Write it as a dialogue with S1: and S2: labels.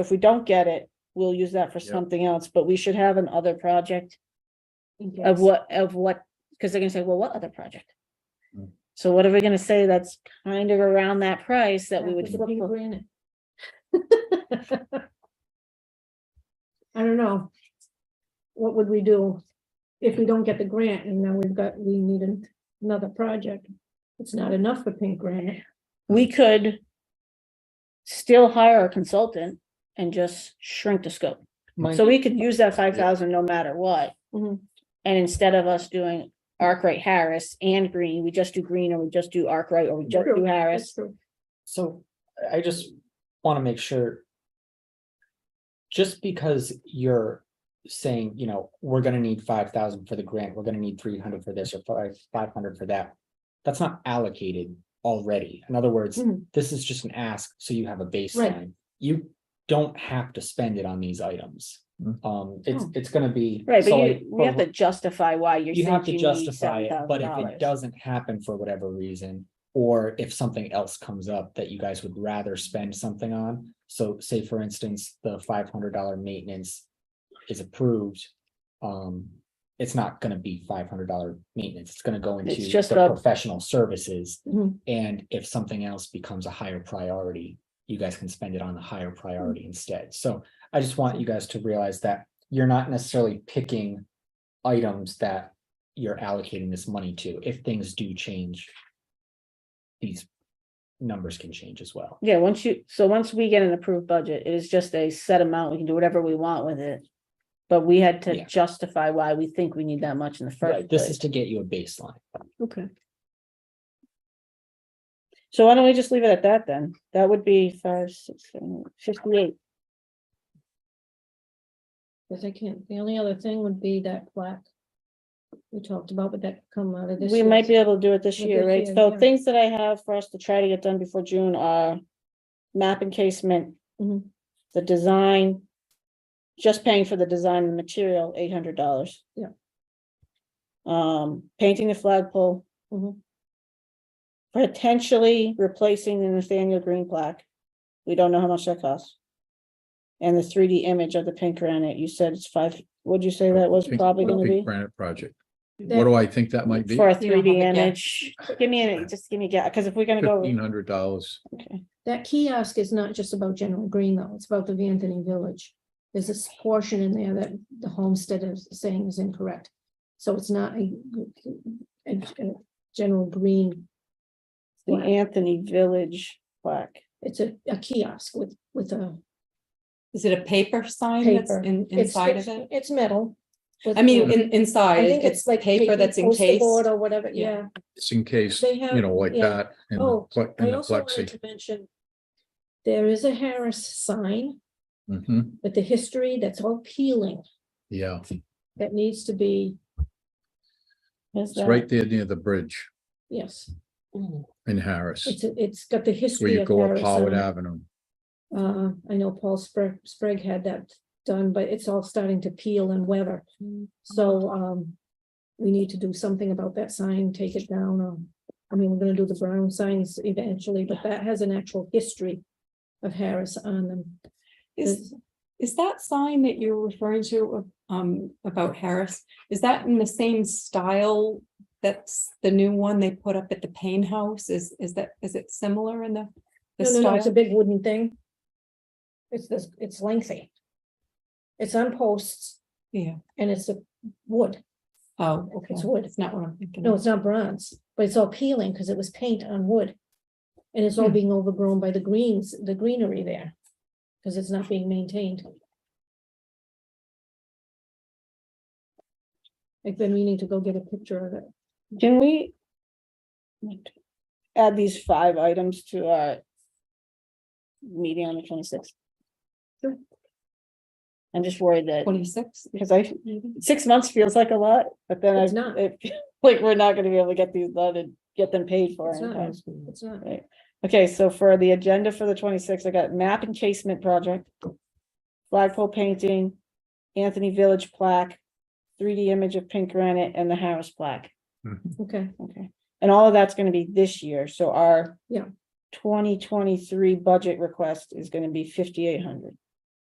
S1: If we don't get it, we'll use that for
S2: Yeah.
S1: something else, but we should have an other project
S3: in
S1: of
S3: case.
S1: what, of what, because they're gonna say, well, what other project?
S2: Hmm.
S1: So what are we gonna say that's kind of around that price that we
S3: Yeah,
S1: would,
S3: look at
S1: flip
S3: the
S1: for?
S3: granite. I don't know. What would we do if we don't get the grant and now we've got, we need an- another project? It's not enough for pink granite.
S1: we could still hire a consultant and just shrink the scope. So we could use that five thousand no matter what.
S3: Mhm.
S1: And instead of us doing Arkwright Harris and Green, we just do Green or we just do Arkwright or we just
S3: True,
S1: do
S3: that's
S1: Harris.
S3: true.
S4: So I- I just want to make sure. Just because you're saying, you know, we're gonna need five thousand for the grant, we're gonna need three hundred for this or five, five hundred for that. That's not allocated already. In other words,
S3: Mhm.
S4: this is just an ask, so you have a baseline. You don't have to spend it on these items.
S2: Mm.
S4: Um, it's,
S3: Oh.
S4: it's gonna be.
S1: Right,
S4: so
S1: but
S4: like,
S1: you, we have
S4: but-
S1: to justify why you're.
S4: you
S1: saying
S4: have to
S1: need
S4: justify it, but if
S1: $7,000.
S4: it doesn't happen for whatever reason. Or if something else comes up that you guys would rather spend something on, so say for instance, the five hundred dollar maintenance is approved. Um, it's not gonna be five hundred dollar maintenance, it's gonna go into
S1: It's just
S4: the
S1: a- Mm-hmm.
S4: professional services.
S3: Mhm.
S4: And if something else becomes a higher priority, you guys can spend it on the higher
S1: Mm.
S4: priority instead, so I just want you guys to realize that you're not necessarily picking items that you're allocating this money to, if things do change. These numbers can change as well.
S1: Yeah, once you, so once we get an approved budget, it is just a set amount, we can do whatever we want with it. But we had to
S4: Yeah.
S1: justify why we think we need that much in the first
S4: Right, this is
S1: place.
S4: to get you a baseline.
S3: Okay,
S1: So why don't we just leave it at that then? That would be five, six, seven, eight, fifty-eight.
S3: because I can't, the only other thing would be that plaque. We talked about, would that come out of this?
S1: We might be
S3: year's-
S1: able to do it this
S3: With
S1: year,
S3: this
S1: right?
S3: year,
S1: So
S3: yeah.
S1: things that I have for us to try to get done before June are map encasement,
S3: Mhm.
S1: the design, just paying for the design and material, eight hundred dollars.
S3: Yeah.
S1: Um, painting the flagpole.
S3: Mhm.
S1: Potentially replacing the Nathaniel Green plaque. We don't know how much that costs. And the three D image of the pink granite, you said it's five, what'd you say that was
S2: Pink-
S1: probably gonna
S2: Pink
S1: be?
S2: Granite project. What
S3: That-
S2: do I think that might be?
S1: For a
S4: You know,
S1: three D
S4: yeah.
S1: image, give me, a just give me, a because if we're gonna go.
S2: Fifteen hundred dollars.
S1: Okay,
S3: That kiosk is not just about General Green though, it's about the Anthony Village. There's this portion in there that the homestead is saying is incorrect. So it's not a, a- a General Green.
S1: the
S3: plaque.
S1: Anthony Village plaque.
S3: It's a, a kiosk with, with a.
S5: Is it a paper sign that's
S3: Paper.
S5: in,
S3: it's-
S5: inside of
S3: it's-
S5: it?
S3: It's metal. with-
S5: I mean,
S3: with-
S5: in, inside,
S3: I think
S5: it's like paper that's
S3: poster
S5: encased.
S3: board Or whatever,
S5: Yeah.
S3: yeah.
S2: It's in case,
S3: They
S2: you
S3: have-
S2: know, like
S3: yeah.
S2: that in the
S3: Oh,
S2: pla- in
S3: I
S2: the
S3: also wanted
S2: plexi.
S3: to mention. There is a Harris sign
S2: Mhm,
S3: with the history that's all peeling,
S2: yeah,
S3: that needs to be,
S1: Is
S2: it's
S1: that-
S2: right there near the bridge
S3: yes.
S5: Mm.
S2: in Harris,
S3: It's, a- it's got the
S2: where
S3: history.
S2: you
S3: of
S2: go up
S3: Harris
S2: Howard
S3: on it.
S2: Avenue.
S3: Uh, I know Paul Sprague, Sprague had that done, but it's all starting to peel and weather.
S5: Mm-hmm.
S3: So, um, we need to do something about that sign, take it down. Um, I mean, we're gonna do the brown signs eventually, but that has an actual history of Harris on them.
S5: Is, is that sign that you're referring to, um, about Harris, is that in the same style? That's the new one they put up at the Payne House? Is, is that, is it similar in the? the
S3: No, no, no, it's a
S5: style?
S3: big wooden thing. It's this, it's lengthy. It's on posts
S5: Yeah,
S3: and it's a wood.
S5: oh, okay,
S3: It's wood.
S5: it's not what I'm thinking.
S3: No,
S5: of.
S3: it's not bronze, but it's all peeling because it was paint on wood. And it's all
S5: Hmm.
S3: being overgrown by the greens, the greenery there. Because it's not being maintained. I've been meaning to go get a picture of it.
S1: Can we? Add these five items to our. Meeting on the twenty-sixth.
S3: Sure.
S1: I'm just worried that,
S5: Twenty-six?
S1: because I, six months feels like a lot, but then
S3: Mm-hmm. It's
S1: I,
S3: not.
S1: it, like, we're not gonna be able to get these done and get them paid for.
S3: It's
S1: in
S3: not.
S1: time.
S3: It's not.
S1: Right, okay, so for the agenda for the twenty-sixth, I got map encasement project. Flagpole painting, Anthony Village plaque, three D image of pink granite and the Harris plaque.
S3: Okay,
S1: Okay, and all of that's gonna be this year, so our.
S3: Yeah.
S1: Twenty twenty-three budget request is gonna be fifty-eight hundred.